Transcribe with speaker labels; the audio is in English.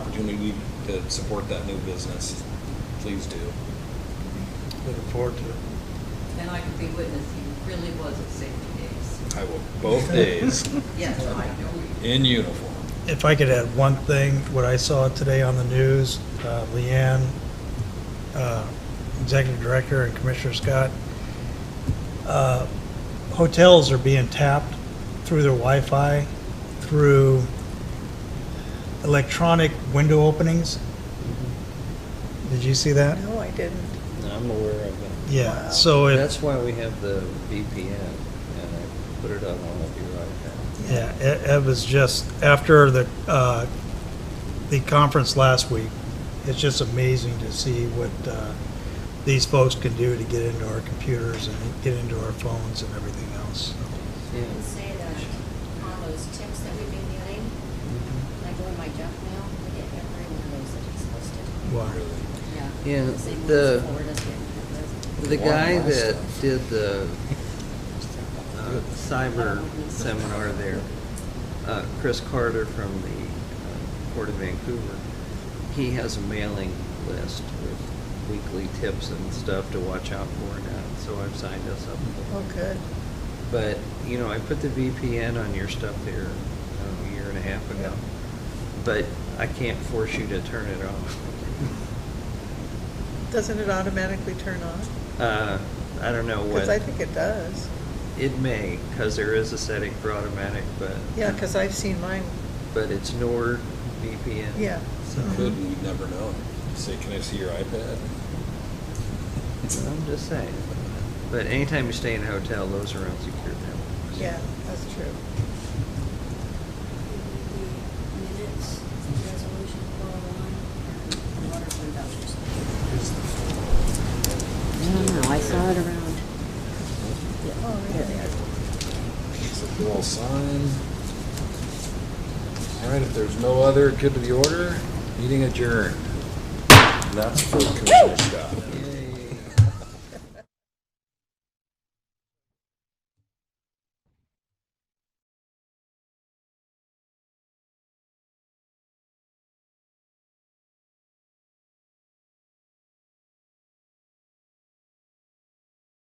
Speaker 1: opportunity to support that new business, please do.
Speaker 2: Looking forward to it.
Speaker 3: And I could be witness, he really was at safety days.
Speaker 1: I will, both days,
Speaker 3: Yes, I know.
Speaker 1: in uniform.
Speaker 2: If I could add one thing, what I saw today on the news, uh, Leanne, uh, Executive Director and Commissioner Scott, uh, hotels are being tapped through their Wi-Fi, through electronic window openings. Did you see that?
Speaker 4: No, I didn't.
Speaker 5: I'm aware of it.
Speaker 2: Yeah,
Speaker 4: Wow.
Speaker 2: so it.
Speaker 5: That's why we have the VPN, and I put it on all of your iPads.
Speaker 2: Yeah, it, it was just, after the, uh, the conference last week, it's just amazing to see what, uh, these folks can do to get into our computers and get into our phones and everything else.
Speaker 5: Yeah.
Speaker 6: can say that on those tips that we've been getting,
Speaker 5: Mm-hmm.
Speaker 6: like on my junk mail, we get every one of
Speaker 2: Wow.
Speaker 6: those that is listed. Yeah.
Speaker 5: Yeah,
Speaker 6: They say,
Speaker 5: the-
Speaker 6: "Let's forward us it."
Speaker 5: The guy
Speaker 1: Wow,
Speaker 5: that
Speaker 1: that's-
Speaker 5: did the uh, cyber seminar there, uh, Chris Carter from the uh, Port of Vancouver, he has a mailing list with weekly tips and stuff to watch out for now, so I've signed us up for that.
Speaker 4: Oh, good.
Speaker 5: But, you know, I put the VPN on your stuff here uh, a year and a half ago. But I can't force you to turn it off.
Speaker 4: Doesn't it automatically turn on?
Speaker 5: Uh, I don't know
Speaker 4: Because I
Speaker 5: what,
Speaker 4: think it does.
Speaker 5: it may, because there is a setting for automatic, but.
Speaker 4: Yeah, because I've seen mine.
Speaker 5: But it's NOR VPN.
Speaker 4: Yeah.
Speaker 5: So, uh-huh.
Speaker 1: Could, we'd never know. Say, can I see your iPad?
Speaker 5: I'm just saying. But anytime you stay in a hotel, those are unsecured networks.
Speaker 4: Yeah, that's true.
Speaker 6: Minutes, resolution four oh one, water fund vouchers.
Speaker 7: I don't know, I saw it around.
Speaker 4: Oh, really?
Speaker 1: So if you all sign. All right, if there's no other, good to the order, meeting adjourned. And That's for Commissioner Scott.